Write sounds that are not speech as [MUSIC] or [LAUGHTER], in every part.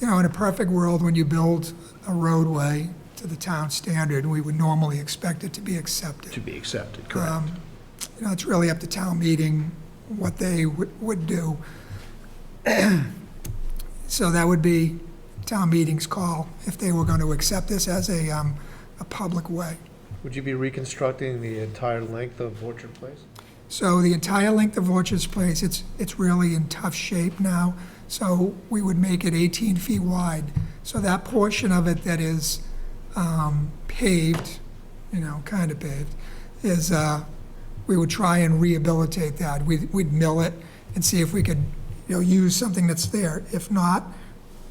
you know, in a perfect world, when you build a roadway to the town standard, we would normally expect it to be accepted. to be accepted, correct? Um, You know, it's really up to town meeting what they would would do. [CLEARS THROAT] So that would be town meeting's call if they were going to accept this as a, um, a public way. Would you be reconstructing the entire length of Orchard Place? So the entire length of Orchard's Place, it's, it's really in tough shape now, so we would make it 18 feet wide. So that portion of it that is um, paved, you know, kind of paved, is, uh, we would try and rehabilitate that. We'd we'd mill it and see if we could, you know, use something that's there. If not,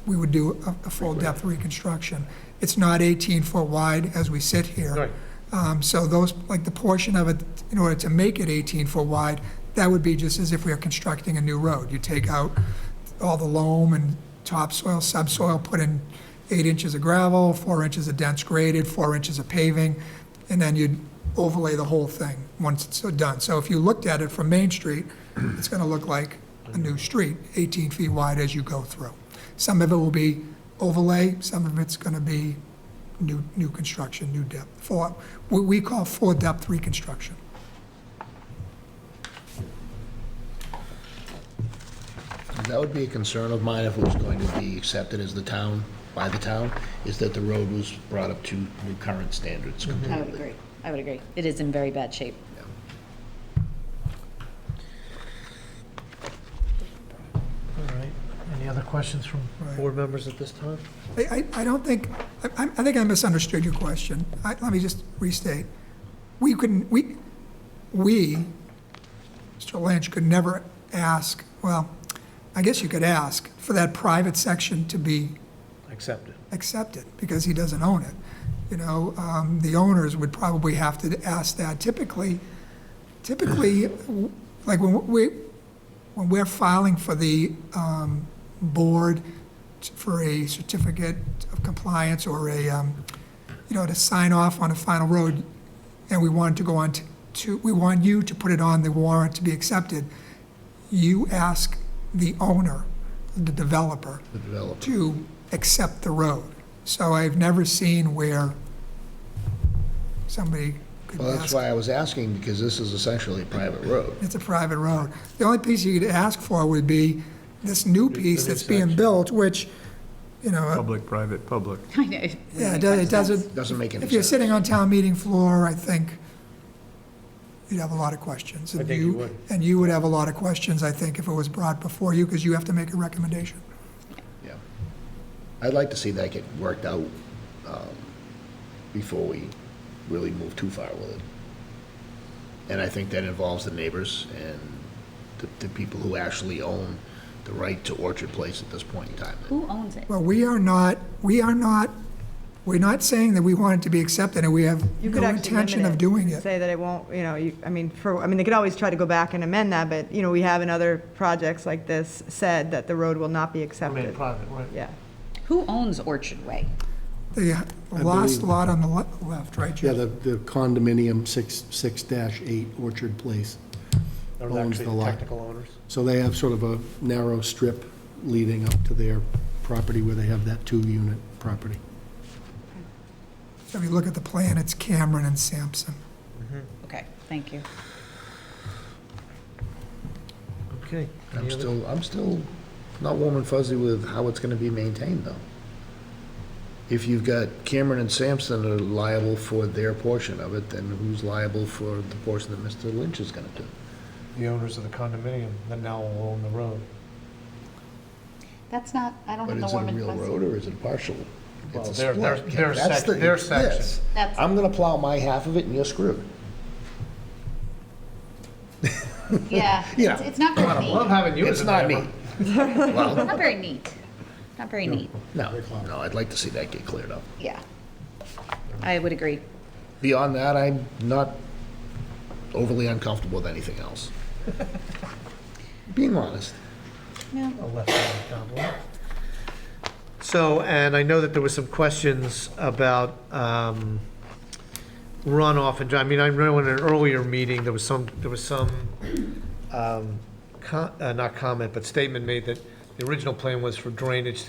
we would do a- a full-depth reconstruction. It's not 18-foot wide as we sit here. Right. Um, So those, like the portion of it, in order to make it 18 foot wide, that would be just as if we were constructing a new road. You take out all the loam and topsoil, subsoil, put in eight inches of gravel, four inches of dense graded, four inches of paving, and then you'd overlay the whole thing once it's done. So if you looked at it from Main Street, it's going to look like a new street, 18 feet wide as you go through. Some of it will be overlay, some of it's going to be new, new construction, new depth, for, what we call four-depth reconstruction. That would be a concern of mine if it was going to be accepted as the town, by the town, is that the road was brought up to new current standards Mm-hmm. I completely. would agree. I would agree. It is in very bad shape. All right. Any other questions from Right. board members at this time? I, I, I don't think, I- I, I think I misunderstood your question. I, let me just restate. We couldn't, we, we, Mr. Lynch could never ask, well, I guess you could ask for that private section to be Accepted. accept it because he doesn't own it. You know, um, the owners would probably have to ask that. Typically, typically, [CLEARS THROAT] w- like when we, when we're filing for the um, board t- for a certificate of compliance or a, um, you know, to sign off on a final road, and we want to go on t- to, we want you to put it on the warrant to be accepted, you ask the owner, the developer, The developer. to accept the road. So I've never seen where somebody could Well, that's ask, why I was asking, because this is essentially a private road. it's a private road. The only piece you could ask for would be this new piece that's being built, which, you know, uh, Public, private, public. [LAUGHS] I know. yeah, it does- it doesn't, Doesn't make any if you're sense. sitting on town meeting floor, I think you'd have a lot of questions. I And think you would. And you would have a lot of questions, I think, if it was brought before you, because you have to make a recommendation. Yeah. I'd like to see that get worked out um, before we really move too far with it. And I think that involves the neighbors and the, the people who actually own the right to Orchard Place at this point in time. Who owns it? Well, we are not, we are not, we're not saying that we want it to be accepted, and we have You could no actually limit intention of doing and it. Say that it won't, you know, you, I mean, for, I mean, they could always try to go back and amend that, but, you know, we have in other projects like this said that the road will not be Made accepted. private, right? Yeah. Who owns Orchard Way? The last lot on the le- left, right, Yeah, Jim? the the condominium six, six dash eight Orchard Place. They're Owns actually the lot. Technical owners. So they have sort of a narrow strip leading up to their property where they have that two-unit property. So If you look at the plan, it's Cameron and Sampson. Okay, thank you. Okay. I'm Any other- still, I'm still not warm and fuzzy with how it's gonna be maintained, though. If you've got Cameron and Sampson are liable for their portion of it, then who's liable for the portion that Mr. Lynch is gonna do? The owners of the condominium that now own the road. That's not, I don't But have the is it warm a and real road [LAUGHS] fuzzy. or is it partial? Well, It's a their- their- split. their That's the- sec- their it's section. this. That's- I'm gonna plow my half of it and you're screwed. Yeah, Yeah. it's it's not very Love neat. having you as It's a not neighbor. me. [LAUGHS] Not very neat. Not very neat, No, no, I'd like to see that get cleared up. yeah. I would agree. Beyond that, I'm not overly uncomfortable with anything [LAUGHS] else. Being honest. No. a left-handed gobbler. So, and I know that there were some questions about um, runoff and, dri- I mean, I remember in an earlier meeting, there was some, there was some, um, co- uh, not comment, but statement made that the original plan was for drainage to